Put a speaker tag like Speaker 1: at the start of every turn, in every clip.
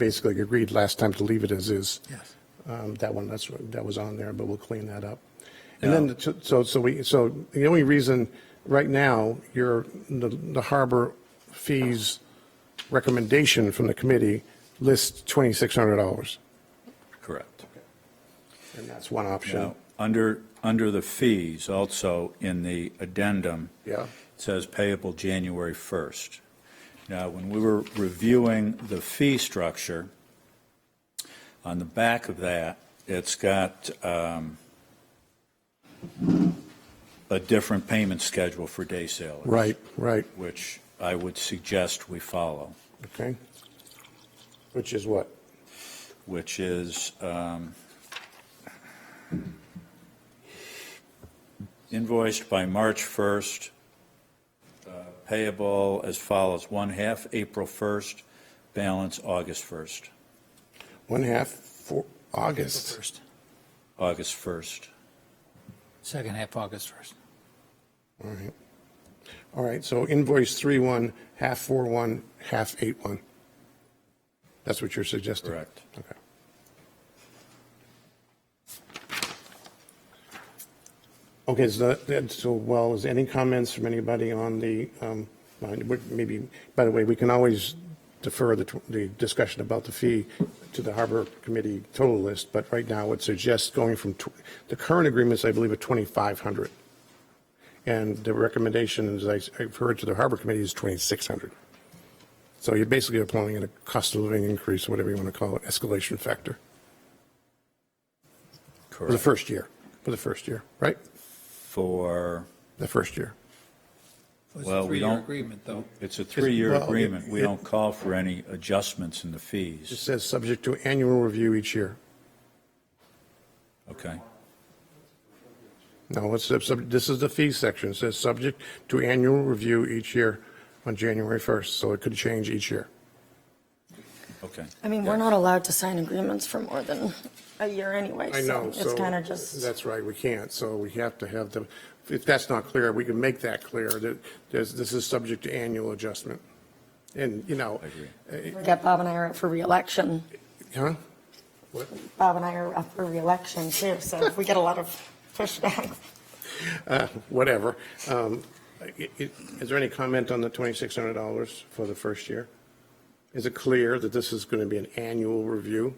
Speaker 1: basically agreed last time to leave it as is.
Speaker 2: Yes.
Speaker 1: Um, That one, that's, what- that was on there, but we'll clean that up. And then, the- so, so we, so the only reason, right now, your, the the harbor fees recommendation from the committee lists $2,600,
Speaker 3: Correct.
Speaker 1: and that's one option.
Speaker 3: Now, under, under the fees, also in the addendum.
Speaker 1: Yeah.
Speaker 3: it Says payable January 1st. Now, when we were reviewing the fee structure, on the back of that, it's got um, a different payment schedule for day sailors.
Speaker 1: Right, right,
Speaker 3: Which I would suggest we follow,
Speaker 1: okay. Which is what?
Speaker 3: which is um, invoiced by March 1st, uh, payable as follows, one half April 1st, balance August 1st,
Speaker 1: One half for August.
Speaker 2: First,
Speaker 3: August 1st.
Speaker 2: second half August first.
Speaker 1: All right. All right, so invoice 3-1, half 4-1, half 8-1. That's what you're suggesting?
Speaker 3: Correct.
Speaker 1: Okay. Okay, so, that- that- so, well, is any comments from anybody on the, um, on- what- maybe, by the way, we can always defer the, tw- the discussion about the fee to the Harbor Committee total list, but right now it suggests going from, tw- the current agreements, I believe, are 2,500. And the recommendation, as I- I've heard to the Harbor Committee, is 2,600. So you're basically applying a cost of living increase, whatever you want to call it, escalation factor for the
Speaker 3: Correct.
Speaker 1: first year, for the first year, right?
Speaker 3: For,
Speaker 1: The first year.
Speaker 2: It's
Speaker 3: Well,
Speaker 2: a
Speaker 3: we
Speaker 2: three-year
Speaker 3: don't-
Speaker 2: agreement, though.
Speaker 3: it's a three-year
Speaker 1: Well, it-
Speaker 3: agreement. We
Speaker 1: it-
Speaker 3: don't call for any adjustments in the
Speaker 1: It
Speaker 3: fees.
Speaker 1: says subject to annual review each year.
Speaker 3: Okay?
Speaker 1: No, it's, it's- this is the fee section. It says subject to annual review each year on January 1st, so it could change each year.
Speaker 3: Okay.
Speaker 4: I mean, we're not allowed to sign agreements for more than a year anyway,
Speaker 1: I know,
Speaker 4: so
Speaker 1: so.
Speaker 4: it's kind of just,
Speaker 1: That's right, we can't, so we have to have the, if that's not clear, we can make that clear, that there's, this is subject to annual adjustment. And, you know. eh,
Speaker 4: forget Bob and I are up for reelection.
Speaker 1: Huh?
Speaker 4: Bob and I are up for reelection too, so we get a lot of pushback.
Speaker 1: Whatever. Um, i- i- Is there any comment on the $2,600 for the first year? Is it clear that this is going to be an annual review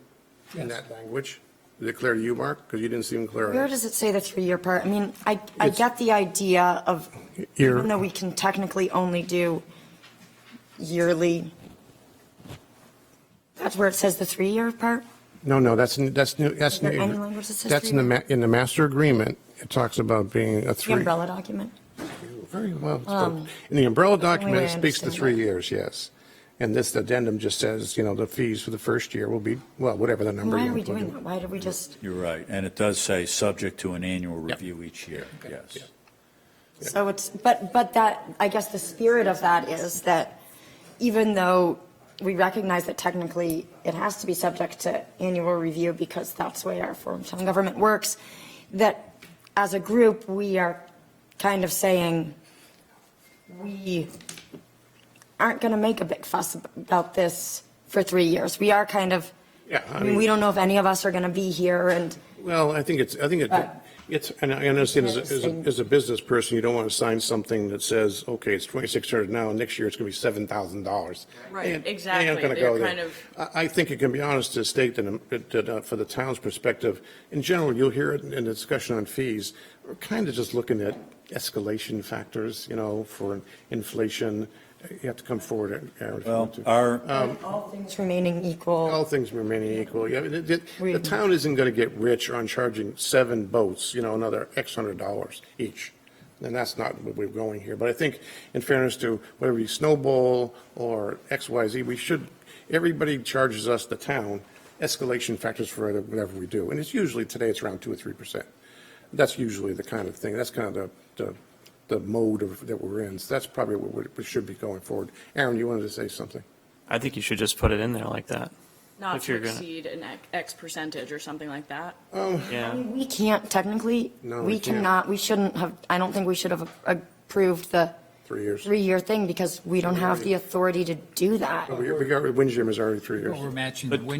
Speaker 1: in
Speaker 2: Yes.
Speaker 1: that language? Is it clear to you, Mark? Because you didn't seem clear. on
Speaker 4: Where
Speaker 1: it.
Speaker 4: does it say the three-year part? I mean, I, I get the idea of,
Speaker 1: Year.
Speaker 4: even though we can technically only do yearly, that's where it says the three-year part?
Speaker 1: No, no, that's, n- that's new, that's
Speaker 4: there
Speaker 1: new.
Speaker 4: any language that says
Speaker 1: That's in the, ma- in the master agreement, it talks about being a
Speaker 4: The
Speaker 1: three.
Speaker 4: umbrella Um, document?
Speaker 1: Very well. spoken. In the umbrella document,
Speaker 4: way
Speaker 1: it
Speaker 4: I
Speaker 1: speaks to
Speaker 4: understand
Speaker 1: three
Speaker 4: that.
Speaker 1: years, yes. And this addendum just says, you know, the fees for the first year will be, well, whatever the number.
Speaker 4: Why
Speaker 1: you
Speaker 4: are we
Speaker 1: want to put
Speaker 4: doing
Speaker 1: in.
Speaker 4: that? Why did we just,
Speaker 3: You're right, and it does say, subject to an annual review each year, yes.
Speaker 4: so it's, but, but that, I guess the spirit of that is that even though we recognize that technically it has to be subject to annual review because that's the way our form of government works, that as a group, we are kind of saying, we aren't going to make a big fuss about this for three years. We are kind of,
Speaker 1: Yeah, I
Speaker 4: I mean,
Speaker 1: mean-
Speaker 4: we don't know if any of us are going to be here and
Speaker 1: Well, I think it's, I think it-
Speaker 5: Uh,
Speaker 4: But-
Speaker 1: it's, and I understand as, a- as a-
Speaker 4: Interesting.
Speaker 1: as a business person, you don't want to sign something that says, okay, it's 2,600 now, and next year it's going to be 7,000 dollars.
Speaker 5: Right, exactly. They're kind of-
Speaker 1: I, I think it can be honest to state that, that, that, uh, for the town's perspective, in general, you'll hear it in the discussion on fees, we're kind of just looking at escalation factors, you know, for inflation. You have to come forward, Aaron. if you
Speaker 3: Well,
Speaker 1: want to.
Speaker 3: our,
Speaker 1: Um,
Speaker 4: all things remaining equal.
Speaker 1: All things remaining equal, yeah, the, the- the
Speaker 4: Right.
Speaker 1: town isn't gonna get rich on charging seven boats, you know, another X hundred dollars each. And that's not where we're going here, but I think in fairness to whether you snowball or X, Y, Z, we should, everybody charges us, the town, escalation factors for whatever we do, and it's usually, today it's around two or three percent. That's usually the kind of thing, that's kind of the, the, the mode of, that we're in, so that's probably what we- we should be going forward. Aaron, you wanted to say something?
Speaker 6: I think you should just put it in there like that.
Speaker 5: not
Speaker 6: If
Speaker 5: to
Speaker 6: you're gonna-
Speaker 5: exceed an ec- X percentage or something like that.
Speaker 6: Yeah.
Speaker 4: We can't technically,
Speaker 1: No,
Speaker 4: we
Speaker 1: we can't.
Speaker 4: cannot, we shouldn't have, I don't think we should have approved the
Speaker 1: three years.
Speaker 4: three-year thing because we don't have the authority to do that.
Speaker 1: We we got, Windjammer is already three years.
Speaker 2: We're matching the wind